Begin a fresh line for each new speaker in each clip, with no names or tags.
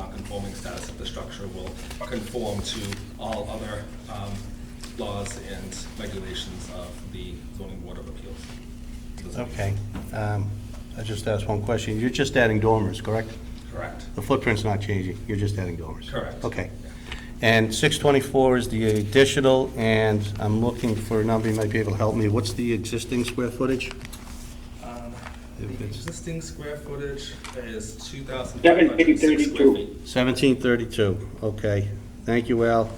non-conforming uh, status of the structure will conform to all other um, laws and regulations of the zoning board of appeals. Doesn't make
Okay.
sense.
Um, I just asked one question. You're just adding dormers, correct?
Correct.
The footprint's not changing, you're just adding dormers?
Correct.
Okay. And 624 is the additional, and I'm looking for a number, you might be able to help me. What's the existing square footage?
Um,
If
The
it's-
existing square footage is 2,506 square
1732.
feet.
1732, okay. Thank you, Al.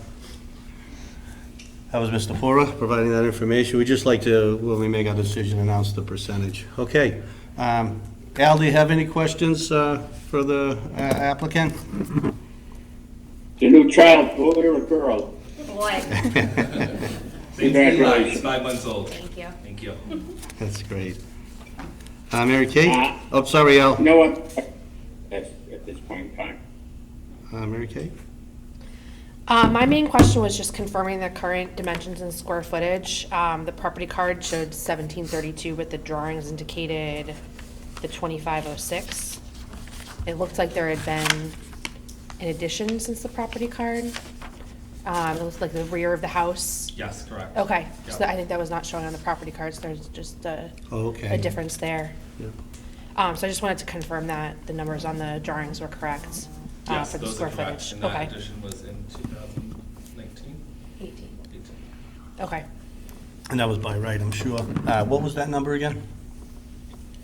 That was Mr. Fora providing that information. We'd just like to, when we make our decision, announce the percentage. Okay. Um, Al, do you have any questions uh, for the uh, applicant?
The new child, boy or girl?
Boy,
Seems to be live.
Congratulations.
It's five months old.
thank you.
Thank you.
That's great. Uh, Mary Kate?
Uh,
Oh, sorry, Al.
No one, at at this point in time.
Uh, Mary Kay?
Uh, my main question was just confirming the current dimensions and square footage. Um, the property card showed seventeen thirty-two, but the drawings indicated the twenty-five oh six. It looked like there had been an addition since the property card. Um, it looked like the rear of the house.
Yes, correct.
Okay, so
Yeah.
I think that was not showing on the property cards, there's just a,
Oh, okay.
a difference there.
Yeah.
Um, so I just wanted to confirm that the numbers on the drawings were correct, uh,
Yes,
for the
those
square
are correct.
footage.
And
Okay.
that addition was in 2019,
Eighteen.
18.
Okay.
And that was by right, I'm sure. Uh, What was that number again?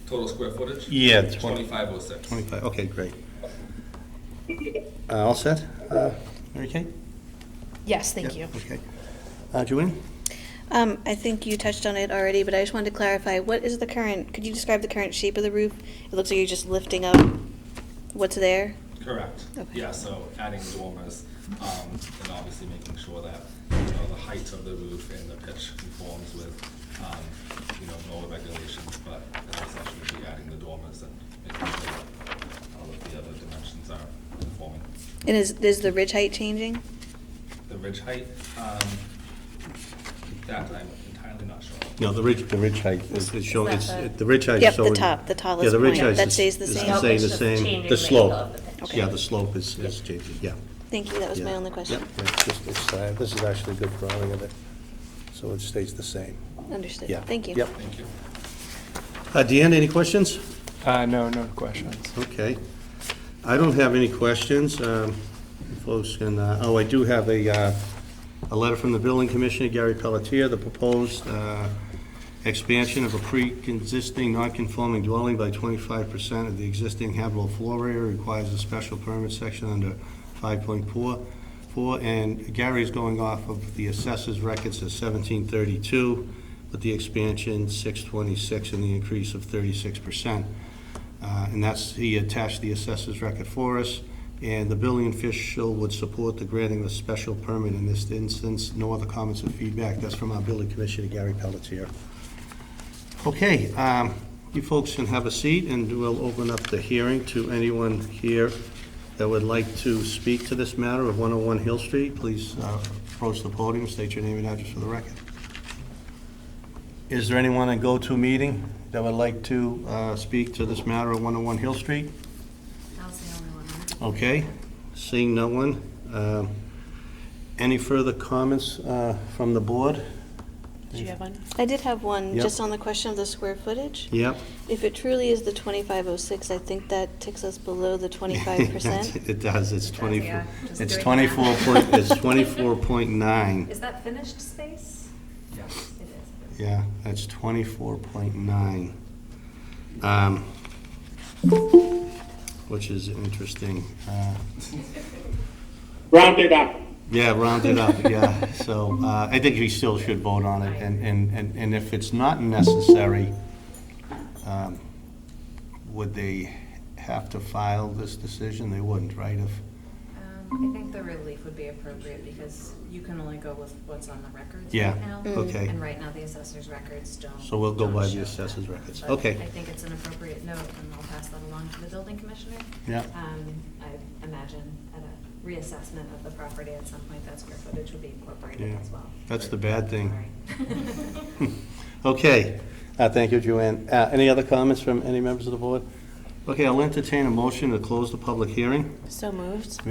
Total square footage?
Yeah, it's one-
2506.
25, okay, great. Uh, All set? Uh, Mary Kay?
Yes, thank you.
Yep, Okay. Uh, Joanne?
Um, I think you touched on it already, but I just wanted to clarify, what is the current, could you describe the current shape of the roof? It looks like you're just lifting up what's there.
Correct.
Okay.
Yeah, so adding dormers, um, and obviously making sure that, you know, the height of the roof and the pitch conforms with, um, you know, NOAA regulations, but it's essentially adding the dormers and making sure that all of the other dimensions are conforming.
And is, is the ridge height changing?
The ridge height, um, that I'm entirely not sure. of.
No, the ridge, the ridge height is is showing,
Is
it's,
that
it- the ridge height is
Yep, the
showing.
top, the tallest
Yeah, the ridge
point.
height
That
is-
stays the
is
same.
staying the
Nope, it's just
same.
changing
The
the angle
slope.
of the pitch.
Yeah,
Okay.
the slope is, is changing, yeah.
Thank you, that was my
yeah.
only question.
Yep, it's just- it's, uh, This is actually a good drawing of it, so it stays the same,
Understood,
yeah.
thank you.
Yep.
Thank you.
Uh, Deanne, any questions?
Uh, no, no questions.
Okay. I don't have any questions. um, Folks can, uh, oh, I do have a, uh, a letter from the building commissioner, Gary Pelletier, the proposed uh, expansion of a pre-existing non-conforming dwelling by 25% of the existing habitable floor area requires a special permit section under 5.4. four, And Gary's going off of the assessor's records at 1732, with the expansion 626 and the increase of 36%. Uh, And that's, he attached the assessor's record for us. And the building official would support the granting of a special permit in this instance. No other comments or feedback. That's from our building commissioner, Gary Pelletier. Okay, um, you folks can have a seat, and we'll open up the hearing to anyone here that would like to speak to this matter of 101 Hill Street. Please uh, approach the podium, state your name and address for the record. Is there anyone at go-to meeting that would like to uh, speak to this matter at 101 Hill Street?
That was the only one. right?
Okay, seeing no one. um, Any further comments uh, from the board?
Did you have one?
I did have one,
Yep.
just on the question of the square footage.
Yep.
If it truly is the twenty-five oh six, I think that ticks us below the twenty-five percent.
It does, it's 24,
yeah, just
it's
doing
24
that.
point, it's 24.9.
Is that finished space?
Yes.
It is.
Yeah, that's 24.9. um, Which is interesting. Uh,
Round it up.
Yeah, round it up, yeah. So uh, I think we still should vote on it, and, and, and and if it's not necessary, um, would they have to file this decision? They wouldn't, right? If
Um, I think the relief would be appropriate because you can only go with what's on the records
Yeah, Mm.
right now.
okay.
And right now, the assessor's records don't.
So we'll go
don't
by the
show that.
assessor's records.
But
Okay.
I think it's an appropriate note and I'll pass that along to the building commissioner.
Yeah.
Um, I imagine at a reassessment of the property at some point, that square footage would be incorporated
Yeah,
as well.
that's the bad thing.
Sorry.
Okay, Uh, thank you, Joanne. Uh, Any other comments from any members of the board? Okay, I'll entertain a motion to close the public hearing.
So moved.